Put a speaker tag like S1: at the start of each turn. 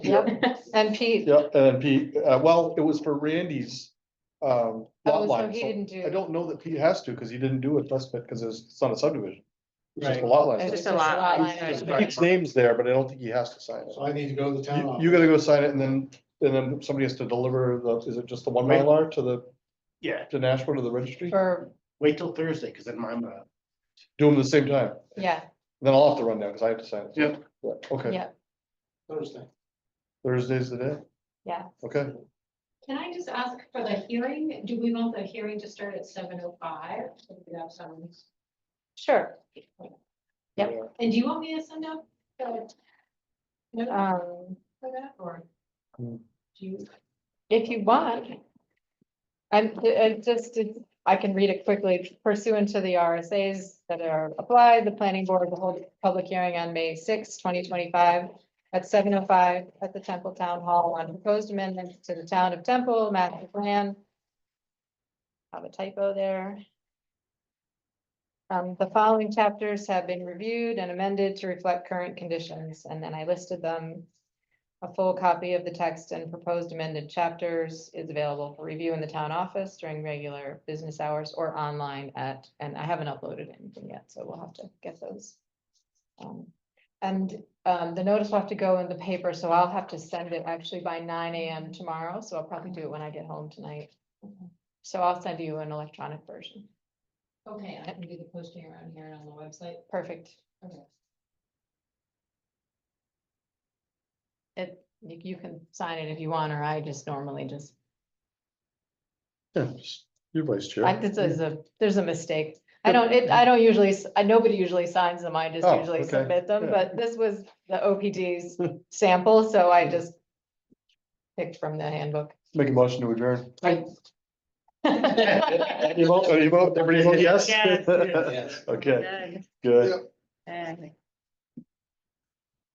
S1: Yep, and Pete,
S2: Yeah, and then Pete, uh, well, it was for Randy's, um, lot
S1: oh, so
S2: line,
S1: he
S2: so
S1: didn't do.
S2: I don't know that Pete has to, cause he didn't do a test pit, cause it's, it's not a subdivision. It's just a
S3: Right.
S2: lot
S1: It's
S2: line.
S1: just
S2: so-
S1: a lot line
S3: It's
S1: item.
S3: just-
S2: Pete's name's there, but I don't think he has to sign it.
S3: So I need to go to the town
S2: You,
S3: office.
S2: you gotta go sign it and then, and then somebody has to deliver the, is it just the one
S3: Right.
S2: Mylar to the,
S3: Yeah,
S2: to Nashville to the registry?
S1: For,
S3: wait till Thursday, because then I'm, uh,
S2: Do them at the same time,
S1: yeah,
S2: then I'll have to run down, cause I have to sign it.
S3: Yeah.
S2: Yeah, okay,
S1: yeah,
S3: Thursday.
S2: Thursday's the day,
S1: yeah.
S2: okay,
S4: Can I just ask for the hearing, do we want the hearing to start at seven oh five? And
S1: Sure. Yep.
S4: do you want me to send out? the note
S1: Um,
S4: for that, or
S2: Hmm.
S4: do you?
S1: if you want, I'm, it just, did- I can read it quickly pursuant to the RSAs that are applied, the planning board will hold a public hearing on May sixth, twenty twenty-five at seven oh five at the Temple Town Hall on proposed amendments to the town of Temple master plan. Have a typo there. Um, the following chapters have been reviewed and amended to reflect current conditions, and then I listed them. A full copy of the text and proposed amended chapters is available for review in the town office during regular business hours or online at, and I haven't uploaded anything yet, so we'll have to get those. Um, and, um, the notice will have to go in the paper, so I'll have to send it actually by nine AM tomorrow, so I'll probably do it when I get home tonight. So I'll send you an electronic version.
S4: Okay, I can do the posting around here and on the website.
S1: Perfect.
S4: Okay.
S1: It, you you can sign it if you want, or I just normally just,
S2: yeah, just your vice chair.
S1: I, this is a, there's a mistake. I don't, it, I don't usually, s- I, nobody usually signs them, I just
S2: Oh,
S1: usually
S2: okay,
S1: submit them,
S2: yeah.
S1: but this was the OPD's sample, so I just picked from the handbook.
S2: Make a motion to adjourn.
S1: Thank
S2: You vote, you vote, everybody vote yes?
S5: Yes, yes.
S2: Okay,
S5: Good.
S2: good.
S5: Exactly.